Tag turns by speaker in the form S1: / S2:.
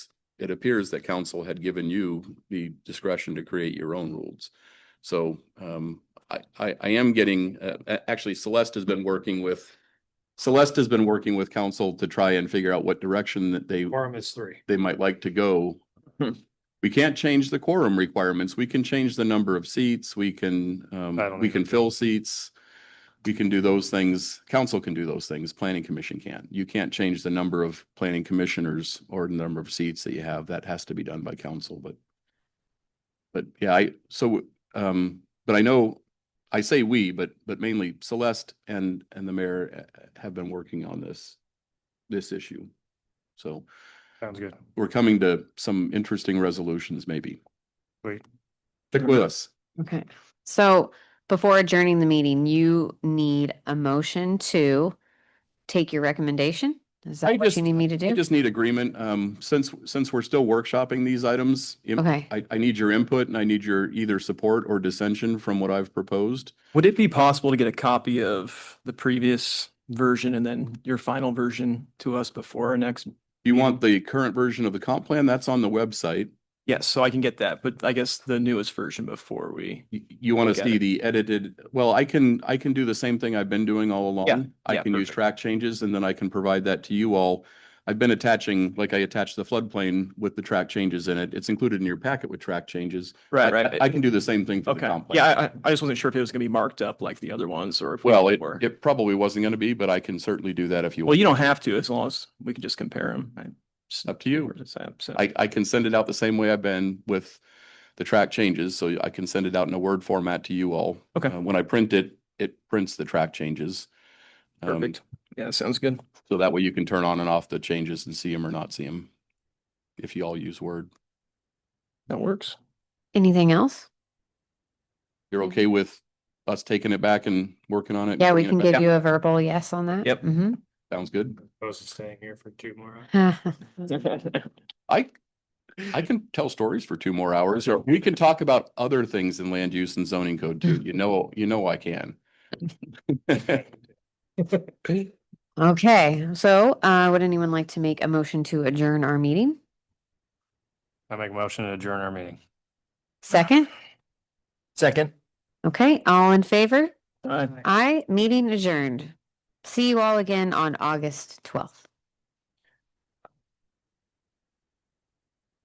S1: it appears that council had given you the discretion to create your own rules. So um, I, I, I am getting, uh, a- actually Celeste has been working with, Celeste has been working with council to try and figure out what direction that they
S2: Quorum is three.
S1: they might like to go.
S2: Hmm.
S1: We can't change the quorum requirements. We can change the number of seats. We can,
S2: I
S1: um,
S2: don't
S1: we can
S2: even-
S1: fill seats. We can do those things. Council can do those things. Planning commission can't. You can't change the number of planning commissioners or the number of seats that you have. That has to be done by council, but. But yeah, I, so, um, but I know, I say we, but, but mainly Celeste and, and the mayor uh, have been working on this, this issue. So
S2: Sounds good.
S1: we're coming to some interesting resolutions, maybe.
S2: Great.
S1: Stick with us.
S3: Okay, so before adjourning the meeting, you need a motion to take your recommendation? Is
S1: I
S3: that what
S1: just-
S3: you need me to
S1: I
S3: do?
S1: just need agreement. Um, since, since we're still workshopping these items, im-
S3: Okay,
S1: I, I need your input and I need your either support or dissension from what I've proposed.
S4: Would it be possible to get a copy of the previous version and then your final version to us before our next?
S1: You want the current version of the comp plan? That's on the website.
S4: Yes, so I can get that, but I guess the newest version before we.
S1: You, you want
S4: Look
S1: to
S4: at
S1: see
S4: it.
S1: the edited, well, I can, I can do the same thing I've been doing all along. I
S4: yeah,
S1: can use
S4: perfect.
S1: track changes and then I can provide that to you all. I've been attaching, like I attached the floodplain with the track changes in it. It's included in your packet with track changes.
S4: Right,
S1: I-
S4: right.
S1: I I can do the same thing for the
S4: Okay,
S1: comp plan.
S4: yeah, I- I, I just wasn't sure if it was gonna be marked up like the other ones or if. we
S1: Well, it,
S4: were.
S1: it probably wasn't going to be, but I can certainly do that if you.
S4: Well,
S1: want.
S4: you don't have to, as long as we can just compare them.
S1: Up to you.
S4: So,
S1: I, I can send it out the same way I've been with the track changes, so I can send it out in a Word format to you all.
S4: Okay.
S1: Uh, When I print it, it prints the track changes. Um,
S4: perfect. Yeah, sounds good.
S1: So that way you can turn on and off the changes and see them or not see them. If you all use Word,
S4: That works.
S3: anything else?
S1: you're okay with us taking it back and working on it? and
S3: Mm-hmm. Yeah, we
S1: bringing
S3: can
S1: it back?
S3: give you a verbal yes on that.
S4: Yep.
S3: Mm-hmm.
S1: Sounds good.
S2: Opposed to staying here for two more. hours.
S3: Mm-hmm.
S1: I, I can tell stories for two more hours, or we can talk about other things in land use and zoning code too.
S3: Mm-hmm.
S1: You know, you know I can.
S3: Okay, so uh, would anyone like to make a motion to adjourn our meeting?
S2: I make a motion to adjourn our meeting.
S3: Second?
S4: Second.
S3: Okay, all in favor?
S4: All right.
S3: Aye, meeting adjourned. See you all again on August twelfth.